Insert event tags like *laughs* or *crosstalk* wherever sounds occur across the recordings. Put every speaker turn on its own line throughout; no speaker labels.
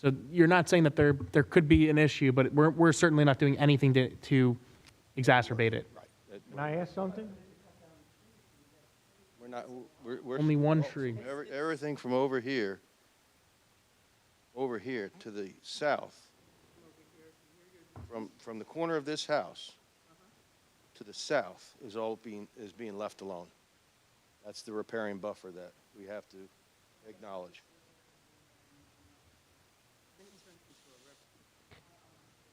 So you're not saying that there, there could be an issue, but we're, we're certainly not doing anything to, to exacerbate it.
Can I ask something?
We're not, we're, we're.
Only one
oh,
tree.
every- Everything from over here, over here to the south, from, from the corner of this house to the south is all being, is being left alone. That's the repairing buffer that we have to acknowledge.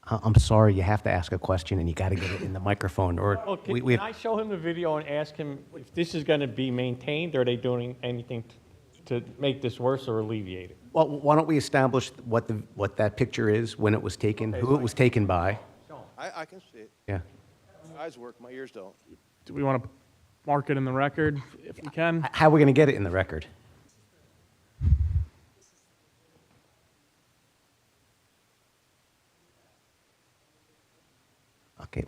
I- I'm sorry, you have to ask a question and you got to get it in the microphone or
Well,
we,
Oh, can,
we
can
have,
I show him the video and ask him if this is gonna be maintained, or are they doing anything t- to make this worse or alleviate it?
well, why don't we establish what the, what that picture is, when it was taken, who it was taken by?
I, I can see it.
Yeah.
My Eyes work, my ears don't.
Do we want to mark it in the record if we can?
H- How are we going to get it in the record? Okay,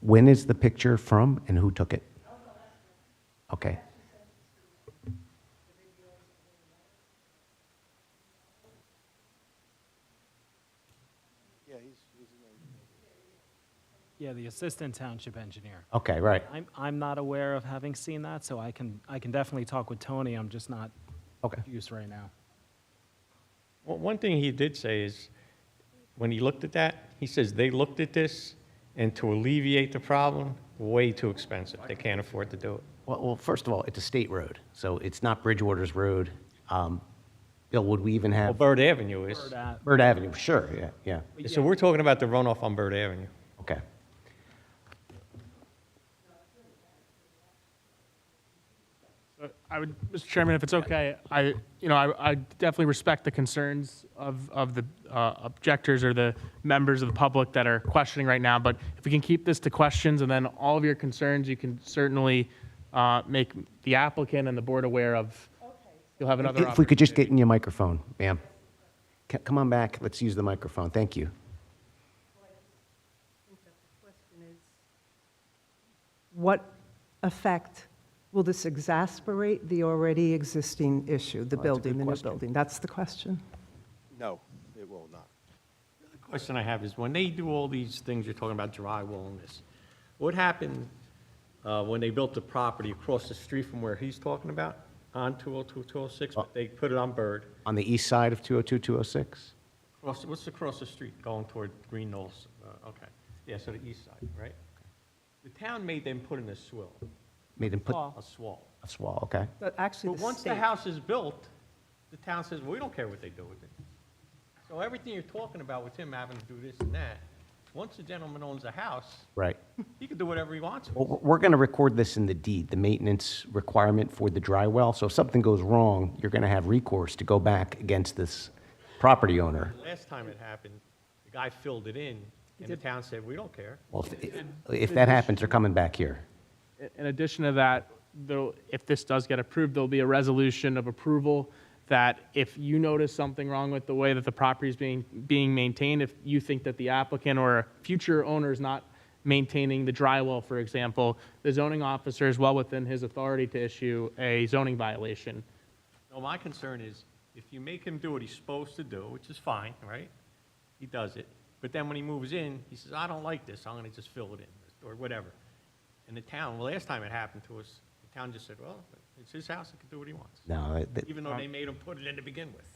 when is the picture from and who took it? Okay.
Yeah, he's, he's an engineer.
Yeah, the assistant township engineer.
Okay, right.
I'm, I'm not aware of having seen that, so I can, I can definitely talk with Tony, I'm just not
Okay.
used right now.
Well, one thing he did say is, when he looked at that, he says they looked at this, and to alleviate the problem, way too expensive. They can't afford to do it.
Well, well, first of all, it's a state road, so it's not Bridgewater's road. Um, Bill, would we even
Well,
have?
Bird Avenue is.
That-
Bird Avenue, sure, yeah, yeah,
So we're talking about the runoff on Bird Avenue.
okay.
So I would, Mr. Chairman, if it's okay, I, you know, I, I definitely respect the concerns of, of the uh, objectors or the members of the public that are questioning right now, but if we can keep this to questions and then all of your concerns, you can certainly uh, make the applicant and the board aware of, you'll have another
If we could just
opportunity.
get in your microphone, ma'am. C- Come on back, let's use the microphone, thank you.
What effect will this exasperate the already existing issue, the building, the new building? That's the question.
No, it will not.
question I have is, when they do all these things, you're talking about drywall and this, what happened uh, when they built the property across the street from where he's talking about, on 202, 206, but they put it on Bird?
On the east side of 202, 206?
Cross, what's across the street going toward Green Knolls? Uh, Okay, yeah, so the east side, right? The town made them put in a swill,
Made them put,
a swall.
that's wall, okay.
But actually,
But
the
once the
state,
house is built, the town says, we don't care what they do with it. So everything you're talking about with him having to do this and that, once the gentleman owns a house,
Right.
He can do whatever he wants.
Well, we're going to record this in the deed, the maintenance requirement for the dry well, so if something goes wrong, you're going to have recourse to go back against this property owner.
Last time it happened, the guy filled it in, and the town said, we don't care.
Well, if- if that happens, they're coming back here.
In addition to that, though, if this does get approved, there'll be a resolution of approval that if you notice something wrong with the way that the property is being, being maintained, if you think that the applicant or a future owner is not maintaining the drywall, for example, the zoning officer is well within his authority to issue a zoning violation.
No, my concern is, if you make him do what he's supposed to do, which is fine, right? He does it, but then when he moves in, he says, I don't like this, I'm gonna just fill it in, or whatever. And the town, well, last time it happened to us, the town just said, well, it's his house, he can do what he wants,
No, that- that-
even though they made him put it in to begin with.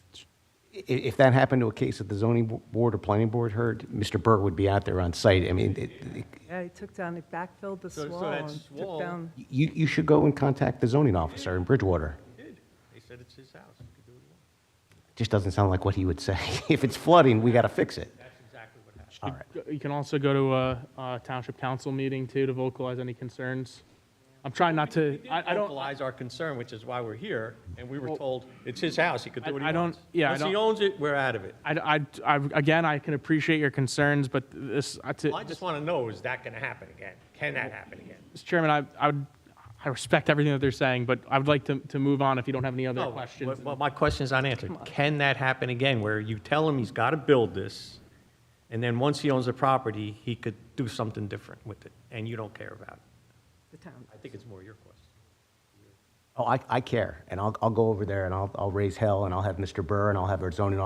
i- if that happened to a case that the zoning bo- board or planning board heard, Mr. Burr would be out there on site. I mean, it- it-
yeah, he took down, it backfilled the
So- so
swall
that
and
swall-
took down.
you, you should go and contact the zoning officer in Bridgewater.
He did, they said it's his house, he could do what he wants.
Just doesn't sound like what he would say. *laughs* If it's flooding, we got to fix it.
That's exactly what happened.
All right.
You can also go to a, a township council meeting too to vocalize any concerns. I'm trying not to, I, I don't.
vocalize our concern, which is why we're here, and we were told, it's his house, he could
I-
do what he
I don't-
wants.
yeah, I
Once he
don't-
owns it, we're out of it.
I, I, I, again, I can appreciate your concerns, but this, I, to,
Well, I just want to know, is that going to happen again? Can that happen again?
Mr. Chairman, I, I would, I respect everything that they're saying, but I would like to, to move on if you don't have any other
No,
questions.
Well, my question's unanswered. Can that happen again, where you tell him he's got to build this, and then once he owns the property, he could do something different with it, and you don't care about it?
The town.
I think it's more your question.
Oh, I, I care, and I'll, I'll go over there and I'll, I'll raise hell, and I'll have Mr. Burr, and I'll have our zoning